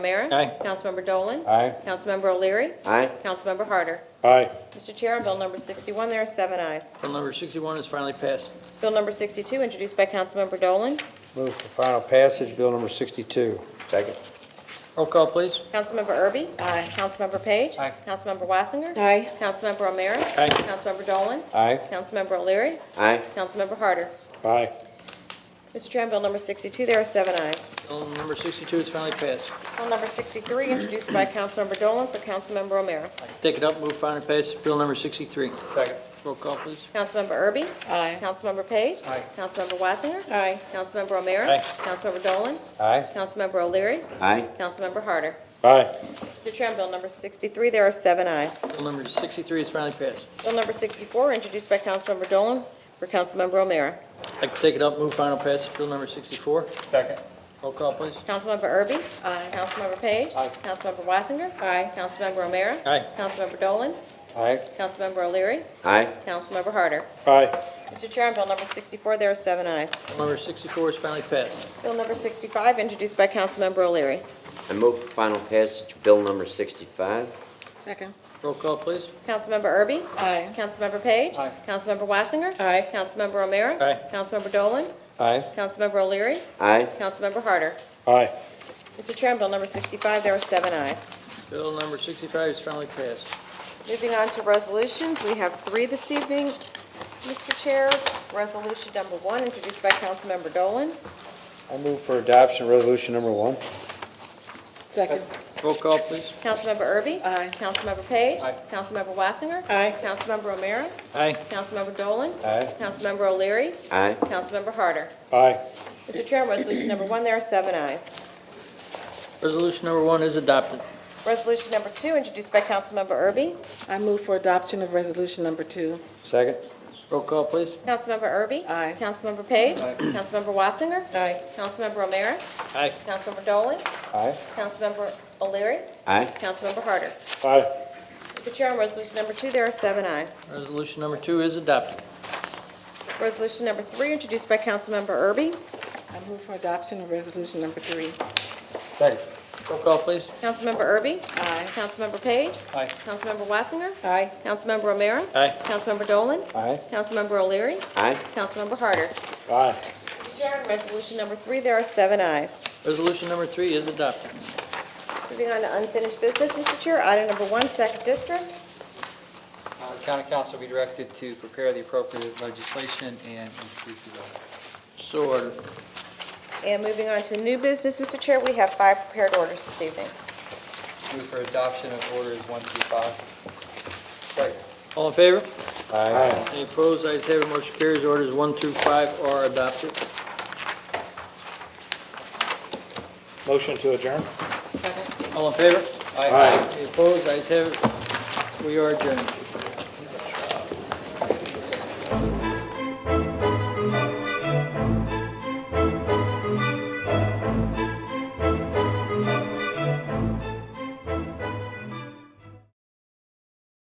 O'Meara. Aye. Councilmember Dolan. Aye. Councilmember O'Leary. Aye. Councilmember Harder. Aye. Mr. Chair, on Bill number 61, there are seven ayes. Bill number 61 is finally passed. Bill number 62, introduced by Councilmember Dolan. Move for final passage, Bill number 62. Second. Roll call, please. Councilmember Erby. Aye. Councilmember Page. Aye. Councilmember Wassinger. Aye. Councilmember O'Meara. Aye. Councilmember Dolan. Aye. Councilmember O'Leary. Aye. Councilmember Harder. Aye. Mr. Chair, on Bill number 62, there are seven ayes. Bill number 62 is finally passed. Bill number 63, introduced by Councilmember Dolan for Councilmember O'Meara. Take it up, move final passage, Bill number 63. Second. Roll call, please. Councilmember Erby. Aye. Councilmember Page. Aye. Councilmember Wassinger. Aye. Councilmember O'Meara. Aye. Councilmember Dolan. Aye. Councilmember O'Leary. Aye. Councilmember Harder. Aye. Mr. Chair, on Bill number 63, there are seven ayes. Bill number 63 is finally passed. Bill number 64, introduced by Councilmember Dolan for Councilmember O'Meara. I'd like to take it up, move final passage, Bill number 64. Second. Roll call, please. Councilmember Erby. Aye. Councilmember Page. Aye. Councilmember Wassinger. Aye. Councilmember O'Meara. Aye. Councilmember Dolan. Aye. Councilmember O'Leary. Aye. Councilmember Harder. Aye. Mr. Chair, on Bill number 64, there are seven ayes. Bill number 64 is finally passed. Bill number 65, introduced by Councilmember O'Leary. I move for final passage, Bill number 65. Second. Roll call, please. Councilmember Erby. Aye. Councilmember Page. Aye. Councilmember Wassinger. Aye. Councilmember O'Meara. Aye. Councilmember Dolan. Aye. Councilmember O'Leary. Aye. Councilmember Harder. Aye. Mr. Chair, on Bill number 65, there are seven ayes. Bill number 65 is finally passed. Moving on to resolutions, we have three this evening, Mr. Chair. Resolution number one, introduced by Councilmember Dolan. I move for adoption resolution number one. Second. Roll call, please. Councilmember Erby. Aye. Councilmember Page. Aye. Councilmember Wassinger. Aye. Councilmember O'Meara. Aye. Councilmember Dolan. Aye. Councilmember O'Leary. Aye. Councilmember Harder. Aye. Mr. Chair, on resolution number one, there are seven ayes. Resolution number one is adopted. Resolution number two, introduced by Councilmember Erby. I move for adoption of resolution number two. Second. Roll call, please. Councilmember Erby. Aye. Councilmember Page. Councilmember Wassinger. Aye. Councilmember O'Meara. Aye. Councilmember Dolan. Aye. Councilmember O'Leary. Aye. Councilmember Harder. Aye. Mr. Chair, on resolution number two, there are seven ayes. Resolution number two is adopted. Resolution number three, introduced by Councilmember Erby. I move for adoption of resolution number three. Second. Roll call, please. Councilmember Erby. Aye. Councilmember Page. Aye. Councilmember Wassinger. Aye. Councilmember O'Meara. Aye. Councilmember Dolan. Aye. Councilmember O'Leary. Aye. Councilmember Harder. Aye. Mr. Chair, on resolution number three, there are seven ayes. Resolution number three is adopted. Moving on to unfinished business, Mr. Chair, item number one, second district. Uh, County Council will be directed to prepare the appropriate legislation and introduce the bill. So ordered. And moving on to new business, Mr. Chair, we have five prepared orders this evening. Move for adoption of orders one through five. Second. All in favor? Aye. Any opposed? Ayes have it, motion carries. Orders one through five are adopted. Motion to adjourn? Second. All in favor? Aye. Any opposed? Ayes have it. We are adjourned.